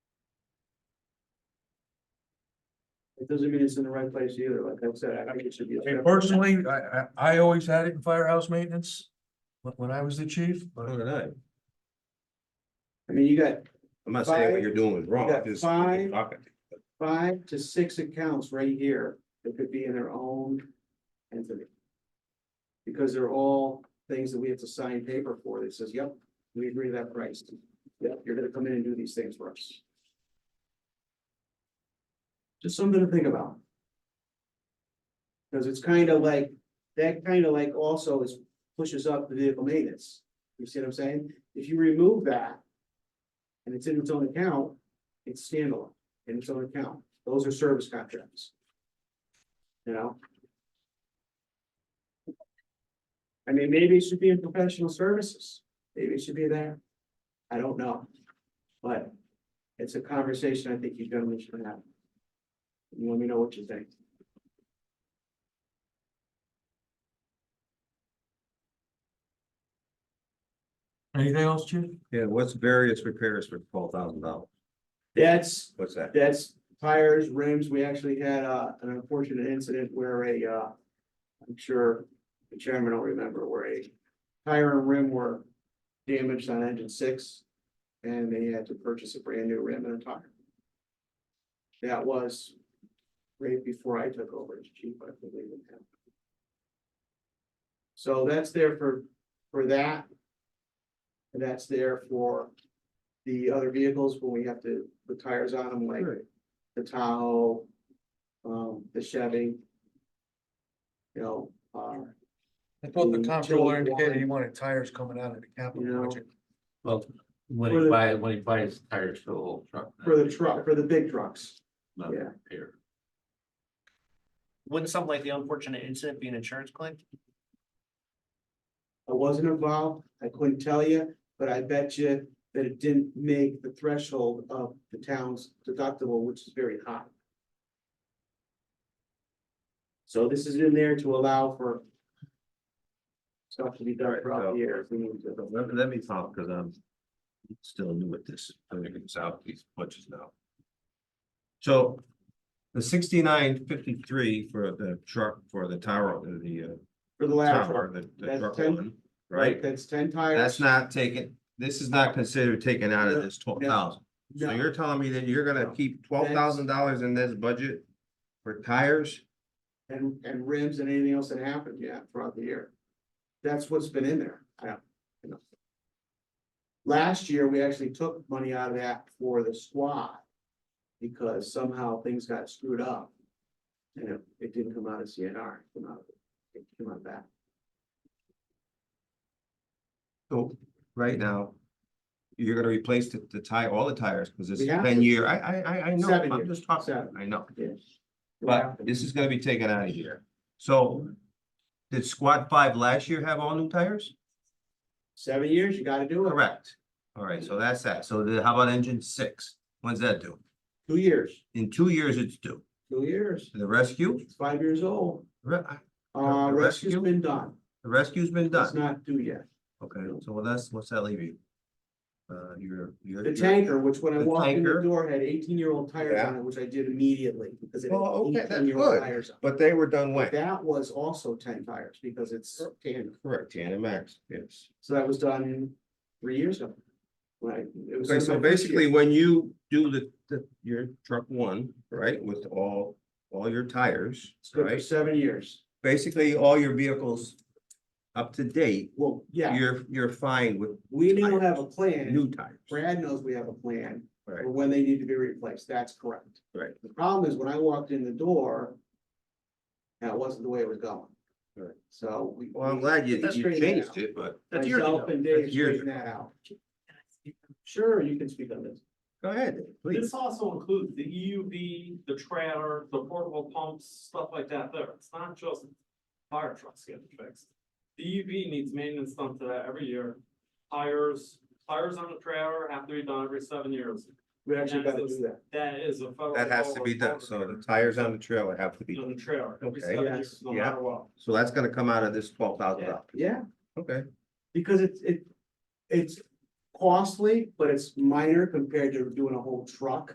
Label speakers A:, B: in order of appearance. A: It doesn't mean it's in the right place either, like I said, I think it should be. a
B: I mean,
A: separate-
B: personally, I, I, I always had it in firehouse maintenance when, when I was the chief,
C: All
B: but
C: right.
A: I mean, you got
C: I'm not saying what
A: Five.
C: you're doing is wrong.
A: You got
C: just-
A: five. five to six accounts right here that could be in their own entity. Because they're all things that we have to sign paper for that says, yep, we agree to that price. Yep, you're gonna come in and do these things for us. Just something to think about. Cause it's kind of like, that kind of like also is pushes up the vehicle maintenance. You see what I'm saying? If you remove that and it's in its own account, it's standalone in its own account. Those are service contracts. You know? I mean, maybe it should be in professional services. Maybe it should be there. I don't know. But it's a conversation I think you gentlemen should have. You let me know what you think.
B: anything else, chief?
C: Yeah, what's various repairs for twelve thousand dollars?
A: That's
C: What's that?
A: That's tires, rims. We actually had uh an unfortunate incident where a uh. I'm sure the chairman will remember where a tire and rim were damaged on engine six. And they had to purchase a brand new rim and a tire. That was right before I took over as chief, I believe in him. So that's there for, for that. And that's there for the other vehicles when we have to put tires on them, like the Tahoe, um, the Chevy. You know, uh,
B: I thought the
A: Mm,
B: comptroller
A: till
B: indicated
A: one.
B: he wanted tires coming out of the
A: You
B: capital
A: know.
B: budget.
D: Well, when
A: For the-
D: he buys, when he buys tires for the whole truck.
A: for the truck, for the big trucks.
D: Not
A: yeah.
D: repair.
E: Wouldn't something like the unfortunate incident be an insurance claim?
A: I wasn't involved, I couldn't tell you, but I bet you that it didn't make the threshold of the town's deductible, which is very high. So this is in there to allow for stuff to be done throughout the year. if we need to.
C: Let, let me talk, because I'm still new at this, I'm figuring this out, these punches now. So the sixty-nine fifty-three for the truck, for the tower, uh, the uh,
A: For the last
C: tower,
A: part,
C: the- the
A: That's
C: truck
A: ten-
C: one, right?
A: That's ten tires.
C: That's not taken, this is not considered taken out of this twelve thousand. So
A: No.
C: you're telling me that you're gonna
A: No.
C: keep twelve thousand dollars in this budget for tires?
A: And, and rims and anything else that happened, yeah, throughout the year. That's what's been in there. Yeah. Last year, we actually took money out of that for the squad. Because somehow things got screwed up. And it, it didn't come out of CNR, it came out, it came out of that.
C: So right now, you're gonna replace the, the tire, all the tires, because it's
A: We have
C: ten
A: to.
C: year, I, I, I, I know,
A: Seven
C: I'm
A: years.
C: just talking,
A: Seven.
C: I know.
A: Yes.
C: But this is gonna be taken out of here. So did squad five last year have all new tires?
A: Seven years, you gotta do it.
C: Correct. All right, so that's that. So the- how about engine six? When's that due?
A: Two years,
C: In two years, it's due.
A: two years,
C: The rescue,
A: it's five years old.
C: re-
A: Uh,
C: The
A: rescue's
C: rescue?
A: been done,
C: the rescue's been
A: it's
C: done.
A: not due yet.
C: Okay, so what that's, what's that leave you? Uh, your, your.
A: The
C: your-
A: tanker, which when I
C: The
A: walked in the
C: tanker.
A: door had eighteen year old tires on
C: Yeah.
A: it, which I did immediately because it had
C: Well, okay, that's
A: eighteen year old
C: good.
A: tires on it.
C: But they were done when?
A: That was also ten tires because it's tandem.
C: Correct, Tandem Max, yes.
A: So that was done three years ago. Right. it was
C: Okay,
A: in
C: so
A: my first
C: basically,
A: year.
C: when you do the, the, your truck one, right, with all, all your tires,
A: It's good for
C: right?
A: seven years.
C: Basically, all your vehicles up to date,
A: Well, yeah,
C: you're, you're fine with
A: we now have a
C: new
A: plan.
C: tires.
A: Brad knows we have a plan
C: Right,
A: for when they need to be replaced. That's correct.
C: right,
A: The problem is when I walked in the door. That wasn't the way it was going.
C: Right.
A: So we.
C: well, I'm glad you,
E: That's
C: you
A: great
C: changed it, but
E: That's years
A: Myself
E: ago.
A: and Dave
C: That's years
A: straightened that out. Sure, you can speak on this.
C: go ahead, please.
F: This also includes the EUV, the trailer, the portable pumps, stuff like that there. It's not just fire trucks getting fixed. The EUV needs maintenance done to that every year. Tires, tires on the trailer have to be done every seven years.
A: We actually
F: Yes,
A: gotta
F: it's-
A: do that.
F: That is a federal.
C: That has to be done, so the tires on the trailer have to be,
F: On the trailer, every
C: Okay.
F: seven
A: Yes.
F: years, no
C: Yeah.
F: matter what.
C: so that's gonna come out of this twelve thousand dollars.
A: Yeah,
C: Okay,
A: because it's, it, it's costly, but it's minor compared to doing a whole truck.